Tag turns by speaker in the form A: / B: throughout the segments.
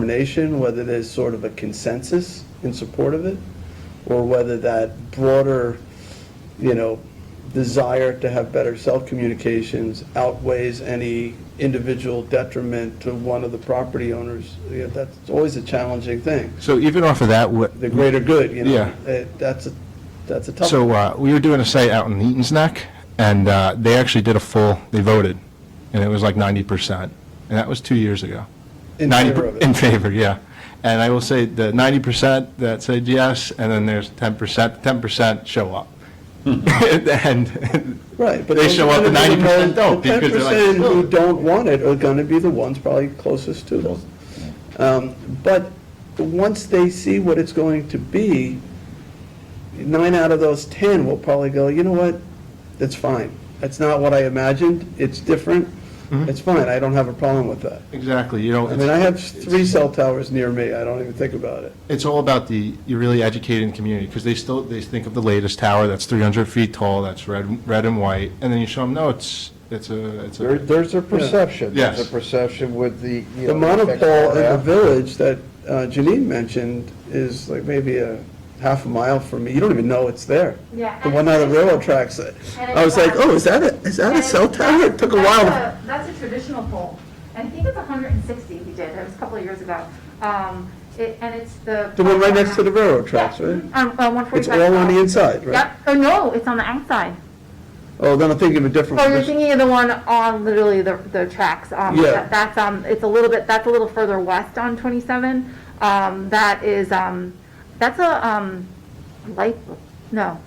A: determination, whether there's sort of a consensus in support of it, or whether that broader, you know, desire to have better self-communications outweighs any individual detriment to one of the property owners. Yeah, That's always a challenging thing.
B: So even off of that, what,
A: The greater good, you know?
B: Yeah.
A: Eh, That's a, that's a tough
B: so
A: one.
B: uh, we were doing a site out in Eaton's Neck, and uh, they actually did a full, they voted, and it was like 90%. And that was two years ago.
A: In
B: 90
A: favor of it.
B: In favor, yeah. And I will say the 90% that said yes, and then there's 10%, 10% show up.
A: Hmm.
B: And
A: Right, but.
B: They
A: those are
B: show up
A: gonna
B: and
A: be the
B: 90% don't,
A: the
B: because they're like,
A: 10%
B: "Oh."
A: who don't want it are gonna be the ones probably closest to them. Um, But once they see what it's going to be, nine out of those 10 will probably go, you know what, that's fine. That's not what I imagined, it's different,
B: Mm-hmm.
A: it's fine, I don't have a problem with that.
B: Exactly, you know.
A: I mean, I have three cell towers near me, I don't even think about it.
B: It's all about the, you're really educating the community, because they still, they think of the latest tower that's 300 feet tall, that's red, red and white, and then you show them, no, it's, it's a, it's
C: There,
B: a,
C: there's a perception. There's
B: Yes.
C: a perception with the, you
A: The
C: know. effects
A: monopole in the
C: around.
A: village that uh, Janine mentioned is like maybe a half a mile from me. You don't even know it's there.
D: Yeah,
A: The
D: and
A: one on the
D: it's-
A: railroad tracks. I was like, oh, is that a, is that a cell tower? It took a
D: That's
A: while.
D: That's a traditional pole, and I think it's hundred and sixty we did, it was a couple of years ago. Um, it, and it's the.
A: The one right next to the railroad tracks, right?
D: Um, uh, one forty-five.
A: It's all on the inside, right?
D: Yep, oh, no, it's on the outside.
A: Oh, then I'm thinking of a different
D: Oh, you're
A: one.
D: thinking of the one on literally the, the tracks, um,
A: Yeah.
D: that- that's, um, it's a little bit, that's a little further west on twenty-seven. Um, that is, um, that's a, um, light, no,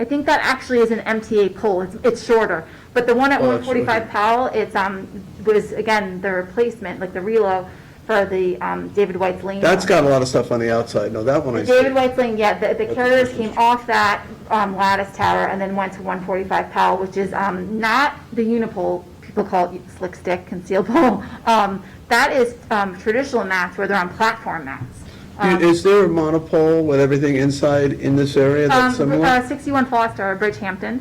D: I think that actually is an MTA pole, it's, it's shorter. But the one at
A: Oh,
D: one
A: that's shorter.
D: forty-five Powell, it's, um, was, again, the replacement, like the relo for the, um, David White's Lane.
A: That's got a lot of stuff on the outside. No, that one I
D: The
A: see.
D: David White's Lane, yeah, the, the carriers came off that, um, lattice tower and then went to one forty-five Powell, which is, um, not the unipole, people call it slick stick, conceal pole. Um, that is, um, traditional mats where they're on platform mats.
A: I- Is there a monopole with everything inside in this area that's
D: Um,
A: similar?
D: uh, sixty-one Foster, Bridgehampton,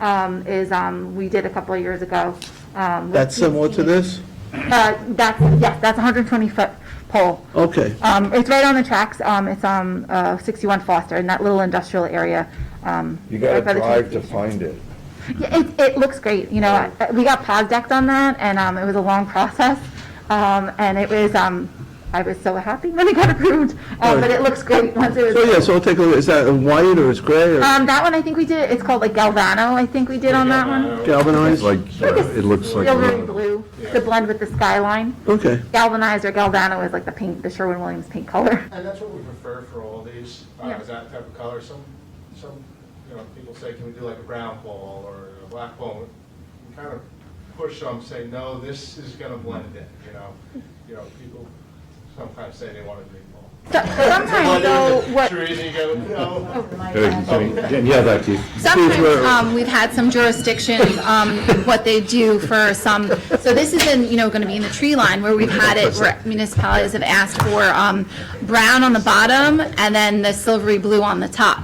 D: um, is, um, we did a couple of years ago. um, with
A: That's similar to
D: TC.
A: this?
D: Uh, that's, yes, that's hundred and twenty foot pole.
A: Okay.
D: Um, it's right on the tracks, um, it's, um, uh, sixty-one Foster, in that little industrial area, um.
C: You gotta
D: right by the train
C: drive to
D: station.
C: find it.
D: Yeah, it, it looks great, you know, uh, we got posdecked on that, and, um, it was a long process, um, and it was, um, I was so happy when it got approved, uh, but it looks great once it was.
A: So, yeah, so I'll take a look. Is that a white or is gray or
D: Um, that one, I think we did, it's called like Galvano, I think we did on that one.
A: galvanized?
D: uh, It looks like. Silvery blue, to blend with the skyline.
A: Okay.
D: Galvanized or Galvano is like the pink, the Sherwin-Williams pink color.
B: And that's what we prefer for all these, uh,
D: Yeah.
B: is that type of color. Some, some, you know, people say, can we do like a brown ball or a black ball? We kind of push some, say, no, this is gonna blend in, you know? You know, people sometimes say they want a green ball.
D: So- Sometimes though, what.
B: Trees, you go, no.
E: Yeah, that Keith.
F: Sometimes, um, we've had some jurisdictions, um, what they do for some, so this is in, you know, gonna be in the tree line where we've had it, where municipalities have asked for, um, brown on the bottom and then the silvery blue on the top.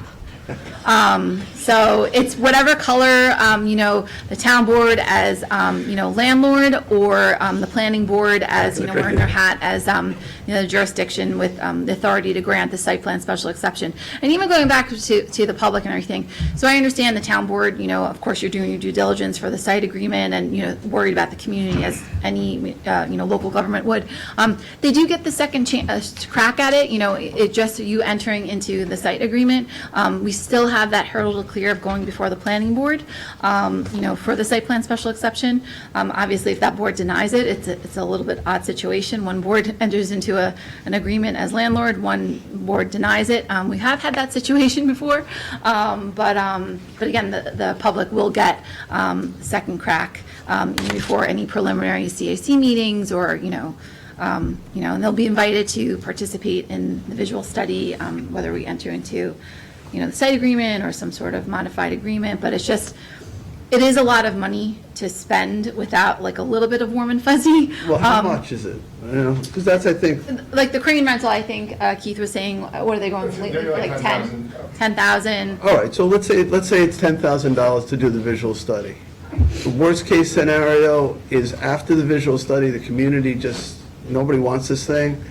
F: Um, so it's whatever color, um, you know, the town board as, um, you know, landlord or, um, the planning board as, you know, wearing their hat as, um, you know, the jurisdiction with, um, the authority to grant the site plan special exception. And even going back to, to the public and everything. So I understand the town board, you know, of course, you're doing your due diligence for the site agreement and, you know, worried about the community as any, uh, you know, local government would. Um, they do get the second chance, crack at it, you know, it it just, you entering into the site agreement. Um, we still have that hurdle to clear of going before the planning board, um, you know, for the site plan special exception. Um, obviously, if that board denies it, it's, a- it's a little bit odd situation. One board enters into a, an agreement as landlord, one board denies it. Um, we have had that situation before, um, but, um, but again, the, the public will get, um, second crack, um, before any preliminary CAC meetings or, you know, um, you know, and they'll be invited to participate in the visual study, um, whether we enter into, you know, the site agreement or some sort of modified agreement, but it's just, it is a lot of money to spend without like a little bit of warm and fuzzy.
A: Well, how
F: Um,
A: much is it? You know, because that's, I think,
F: Like the crane rental, I think uh, Keith was saying, uh, what are they going, for?
B: They're like
F: like ten,
B: 10,000.
F: ten thousand?
A: All right, so let's say, let's say it's ten thousand dollars to do the visual study. The worst-case scenario is after the visual study, the community just, nobody wants this thing,